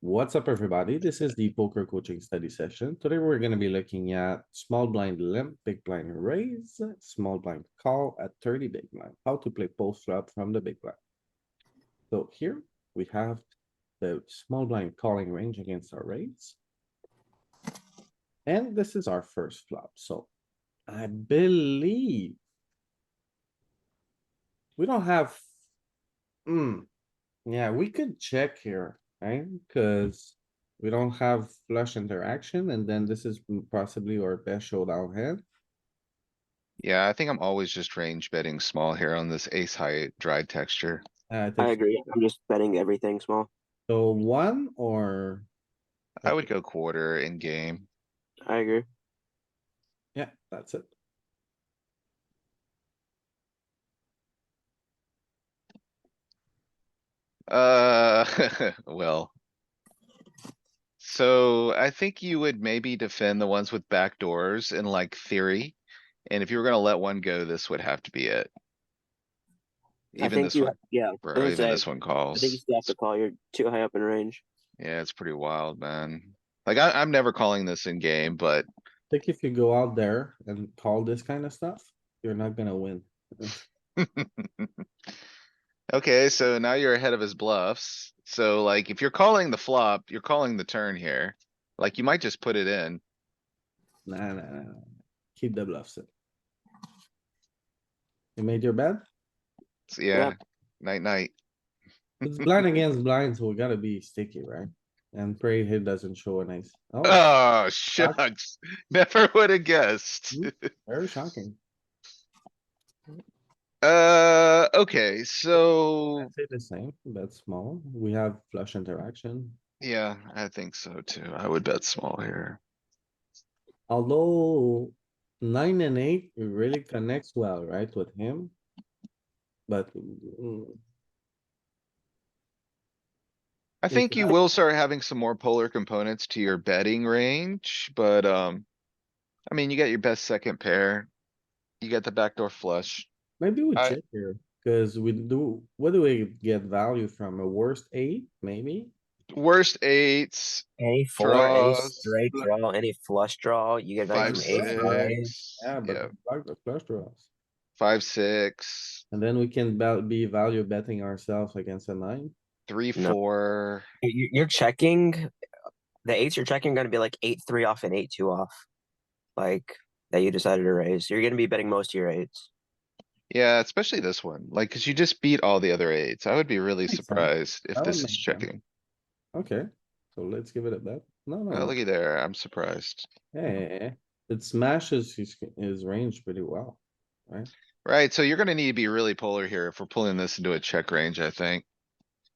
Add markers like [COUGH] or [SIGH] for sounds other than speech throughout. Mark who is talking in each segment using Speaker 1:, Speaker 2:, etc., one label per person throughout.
Speaker 1: What's up, everybody? This is the poker coaching study session. Today, we're gonna be looking at small blind limp, big blind raise, small blind call at thirty big blind, how to play post flop from the big blind. So here we have the small blind calling range against our raise. And this is our first flop, so I believe we don't have. Hmm, yeah, we could check here, right? Cuz we don't have flush interaction and then this is possibly our best showdown hand.
Speaker 2: Yeah, I think I'm always just range betting small here on this ace high dry texture.
Speaker 1: Uh,
Speaker 3: I
Speaker 1: this-
Speaker 3: agree. I'm just betting everything small.
Speaker 1: So one or,
Speaker 2: I would go quarter in game.
Speaker 3: I agree.
Speaker 1: yeah, that's it.
Speaker 2: Uh, [LAUGHS] well. So I think you would maybe defend the ones with back doors in like theory. And if you were gonna let one go, this would have to be it.
Speaker 3: I
Speaker 2: Even
Speaker 3: think
Speaker 2: this
Speaker 3: you,
Speaker 2: one,
Speaker 3: yeah,
Speaker 2: or
Speaker 3: I would
Speaker 2: even
Speaker 3: say-
Speaker 2: this one
Speaker 3: I
Speaker 2: calls.
Speaker 3: think you still have to call. You're too high up in range.
Speaker 2: Yeah, it's pretty wild, man. Like I, I'm never calling this in game, but
Speaker 1: Think if you go out there and call this kind of stuff, you're not gonna win. [LAUGHS]
Speaker 2: Okay, so now you're ahead of his bluffs. So like if you're calling the flop, you're calling the turn here. Like you might just put it in.
Speaker 1: Nah, nah, nah, nah. keep the bluffs in. You made your
Speaker 2: [LAUGHS]
Speaker 1: bet?
Speaker 2: So, yeah, night, night.
Speaker 1: It's blind against blind, so we gotta be sticky, right? And pray he doesn't show an ace. Oh,
Speaker 2: Oh, shucks. [LAUGHS] Never would have guessed.
Speaker 1: very shocking.
Speaker 2: Uh, okay, so,
Speaker 1: I'd say the same, bet small. We have flush interaction.
Speaker 2: yeah, I think so too. I would bet small here.
Speaker 1: Although nine and eight it really connects well, right, with him? But mm,
Speaker 2: I
Speaker 1: Is
Speaker 2: think you
Speaker 1: that-
Speaker 2: will start having some more polar components to your betting range, but, um. I mean, you got your best second pair. You got the backdoor flush.
Speaker 1: maybe we
Speaker 2: I-
Speaker 1: check here, cuz we do, what do we get value from? A worst eight, maybe?
Speaker 2: Worst eights,
Speaker 4: Any four, any
Speaker 2: Draws.
Speaker 4: straight draw, any flush draw, you get value
Speaker 2: Five,
Speaker 4: from ace high.
Speaker 2: six,
Speaker 1: Yeah,
Speaker 2: yeah,
Speaker 1: but like the flush draws.
Speaker 2: five, six,
Speaker 1: And then we can val- be value betting ourselves against a nine.
Speaker 2: three,
Speaker 3: No.
Speaker 2: four.
Speaker 4: You, you're checking, the eights you're checking are going to be like eight three off and eight two off, like that you decided to raise. You're going to be betting most of your eights.
Speaker 2: Yeah, especially this one, like, cause you just beat all the other eights. I would be really
Speaker 1: Makes sense.
Speaker 2: surprised if
Speaker 1: That
Speaker 2: this
Speaker 1: would make
Speaker 2: is
Speaker 1: sense.
Speaker 2: checking.
Speaker 1: Okay, so let's give it a bet. No,
Speaker 2: Oh,
Speaker 1: no,
Speaker 2: looky there, I'm surprised.
Speaker 1: hey, it smashes his, his range pretty well.
Speaker 2: Right, so you're gonna need to be really polar here if we're pulling this into a check range, I think.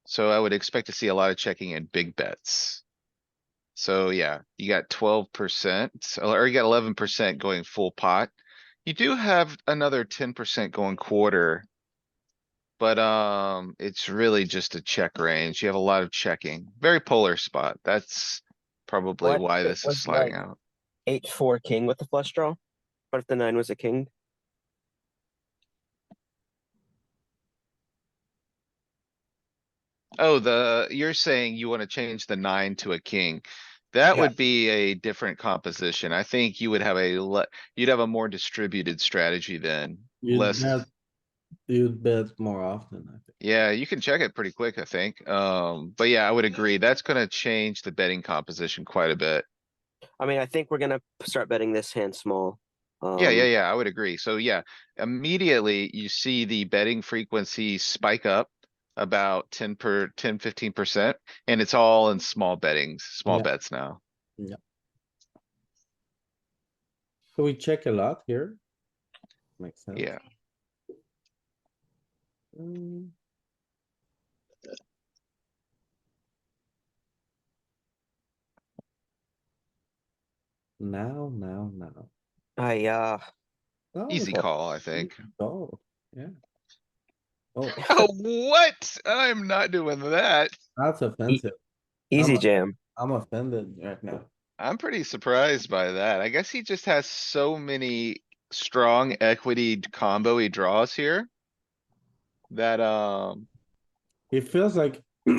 Speaker 2: So I would expect to see a lot of checking and big bets. So yeah, you got twelve percent, or you got eleven percent going full pot. You do have another ten percent going quarter. But, um, it's really just a check range. You have a lot of checking, very polar spot. That's probably
Speaker 4: What
Speaker 2: why
Speaker 4: if it
Speaker 2: this is
Speaker 4: was
Speaker 2: sliding
Speaker 4: like-
Speaker 2: out.
Speaker 4: Eight four king with the flush draw. What if the nine was a king?
Speaker 2: Oh, the, you're saying you wanna change the nine to a king. That
Speaker 4: Yeah.
Speaker 2: would be a different composition. I think you would have a le- you'd have a more distributed strategy then.
Speaker 1: You'd
Speaker 2: Less,
Speaker 1: bet- You'd bet more often, I think.
Speaker 2: yeah, you can check it pretty quick, I think. Um, but yeah, I would agree. That's gonna change the betting composition quite a bit.
Speaker 4: I mean, I think we're going to start betting this hand small. Um,
Speaker 2: Yeah, yeah, yeah, I would agree. So yeah, immediately you see the betting frequency spike up about ten per, 10, 15 percent, and it's all in small bettings, small
Speaker 1: Yeah.
Speaker 2: bets now.
Speaker 1: So we check a lot here. Makes sense.
Speaker 2: Yeah,
Speaker 1: Mm. Now, now, now.
Speaker 4: I, uh,
Speaker 1: Oh,
Speaker 2: easy call, I think.
Speaker 1: Oh, yeah.
Speaker 2: [LAUGHS]
Speaker 1: Oh,
Speaker 2: Oh, what? I'm not doing that.
Speaker 1: that's offensive.
Speaker 4: easy
Speaker 1: a-
Speaker 4: jam.
Speaker 1: I'm offended right now.
Speaker 2: I'm pretty surprised by that. I guess he just has so many strong equity combo he draws here. That, um,
Speaker 1: It feels like